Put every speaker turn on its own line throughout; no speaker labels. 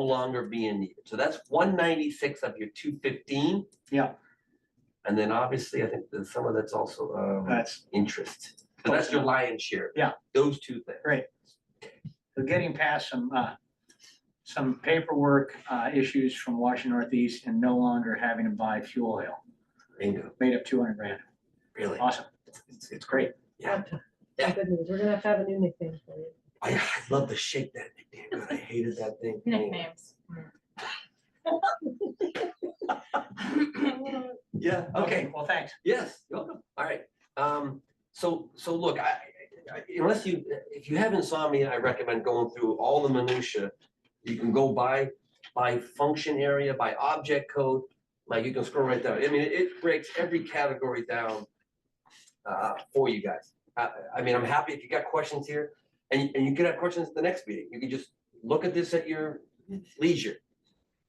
longer being needed. So that's one ninety-six of your two fifteen.
Yeah.
And then obviously, I think there's some of that's also um
That's,
interest. So that's your lion's share.
Yeah.
Those two things.
we're getting past some, uh, some paperwork, uh, issues from Washington Northeast and no longer having to buy fuel oil.
Bingo,
Made up two hundred grand.
really.
Awesome.
It's-
It's great.
Yeah,
Some Good news. We're gonna have to have a new nickname for you.
I I love to shake that nickname, God, I hated that thing.
Nicknames.
Yeah, okay,
Okay, well, thanks.
yes, you're welcome, all right. Um, so, so look, I, I- unless you, if you have insomnia, I recommend going through all the minutia. You can go by, by function area, by object code, like you can scroll right down. I mean, it breaks every category down uh, for you guys. I, I mean, I'm happy if you got questions here, and, and you can have questions at the next meeting. You can just look at this at your leisure.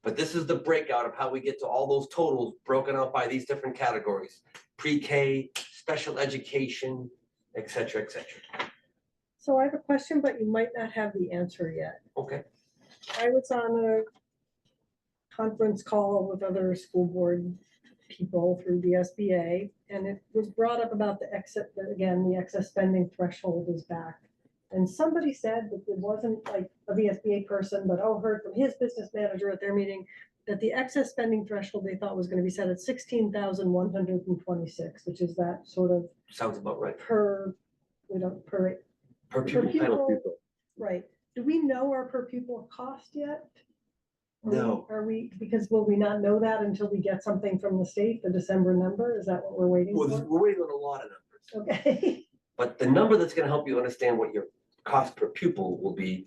But this is the breakout of how we get to all those totals broken out by these different categories, pre-K, special education, et cetera, et cetera.
So I have a question, but you might not have the answer yet.
Okay,
I was on a conference call with other school board people through the SBA, and it was brought up about the exit, that again, the excess spending threshold is back. And somebody said that it wasn't like a VSBA person, but oh, heard from his business manager at their meeting that the excess spending threshold they thought was gonna be set at sixteen thousand one hundred and twenty-six, which is that sort of
sounds about right.
per, we don't, per,
Per
per
pupil penalty.
pupil, right. Do we know our per pupil cost yet? Are we-
No.
Are we, because will we not know that until we get something from the state, the December number? Is that what we're waiting
Well, this-
for?
we're waiting on a lot of numbers,
Okay,
but the number that's gonna help you understand what your cost per pupil will be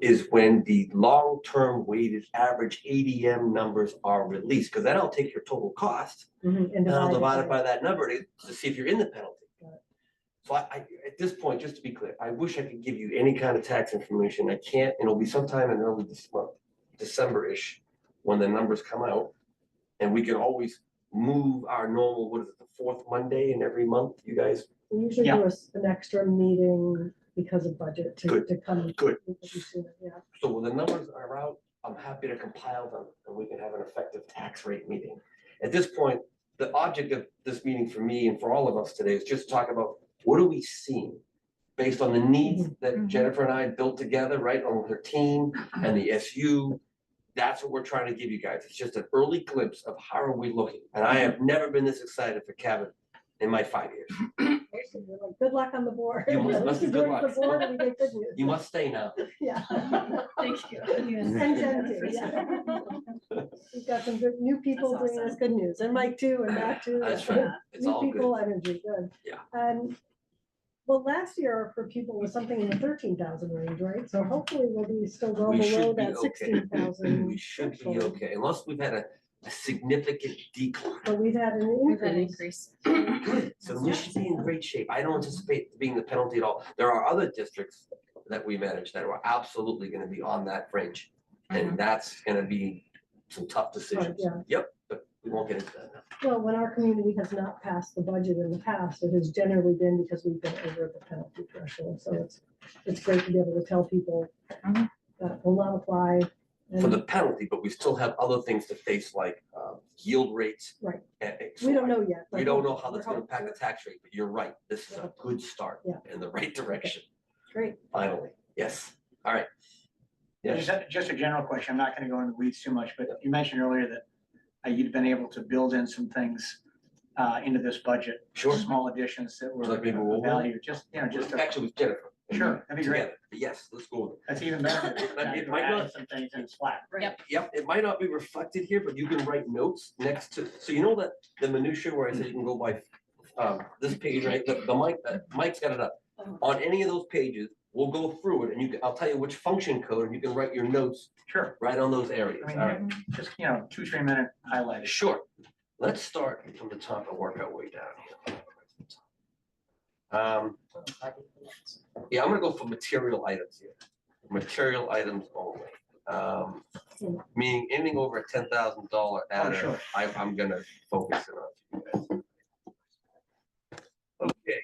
is when the long-term weighted average ADM numbers are released, because that'll take your total cost
Mm-hmm.
Mhm, and
And I'll divide
divide
it
by-
by that number to, to see if you're in the penalty.
Got it.
So I, I, at this point, just to be clear, I wish I could give you any kind of tax information. I can't, and it'll be sometime in early this month, December-ish, when the numbers come out. And we can always move our normal, what is it, the fourth Monday in every month, you guys?
We usually
Yeah.
do a s- an extra meeting because of budget to,
Good,
to come.
good.
Yeah,
So when the numbers are out, I'm happy to compile them and we can have an effective tax rate meeting. At this point, the object of this meeting for me and for all of us today is just to talk about what are we seeing? Based on the needs that
Mhm.
Jennifer and I built together, right, on her team and the SU. That's what we're trying to give you guys. It's just an early glimpse of how are we looking? And I have never been this excited for Kevin in my five years.
Basically, we're like, good luck on the board.
You must-
We
must be
should
good
work the
luck.
board and we get good news.
You must stay now.
Yeah.
Thank you.
And Jen too, yeah. We've got some good, new people
That's
bringing us
awesome.
good news, and Mike too, and Matt too.
That's right. It's
New
all good.
people energy, good.
Yeah.
And, well, last year for people was something in the thirteen thousand range, right? So hopefully we'll be still well
We
below
should be
that
okay.
sixteen
We
thousand.
should be
threshold.
okay, unless we've had a, a significant decline.
But we've had an
We've had an
increase.
increase.
Good, so we
Yeah.
should be in great shape. I don't anticipate being the penalty at all. There are other districts that we manage that are absolutely gonna be on that fringe. And that's gonna be some tough decisions.
Mm-hmm. yeah.
Yep, but we won't get into that now.
Well, when our community has not passed the budget in the past, it has generally been because we've been over the penalty threshold. So it's, it's great to be able to tell people
Mhm.
that will not apply.
For
and-
the penalty, but we still have other things to face like um, yield rates.
Right.
and- and so
We don't
I-
know yet. but
We don't know how
we're
that's gonna
hopeful.
impact the tax rate, but you're right. This is a good start
Yeah.
in the right direction,
Great.
finally. Yes, all right. Yes.
Just, a- just a general question. I'm not gonna go into weeds too much, but you mentioned earlier that uh, you'd been able to build in some things uh, into this budget.
Sure.
Small additions that were
Like maybe we'll-
of value, just, you know, just,
Just
a-
actually with Jennifer.
sure, that'd be great.
Together. But Yes, let's go. with it.
That's even better.
It
than
might not-
adding Some things in flat.
Yep, it might not be reflected here, but you can write notes next to, so you know that the minutia where I said you can go by um, this page, right? The, the mic, uh, Mike's got it up. On any of those pages, we'll go through it and you, can- I'll tell you which function code and you can write your notes
Sure.
right on those areas.
I mean,
All right,
Just, you know, two, three minute highlights.
sure. Let's start from the top and work our way down here. Um, yeah, I'm gonna go for material items here, material items only. Um, meaning anything over a ten thousand dollar adder,
sure.
I, I'm gonna focus it on. you guys. Okay.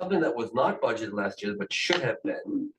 Something that was not budgeted last year, but should have been,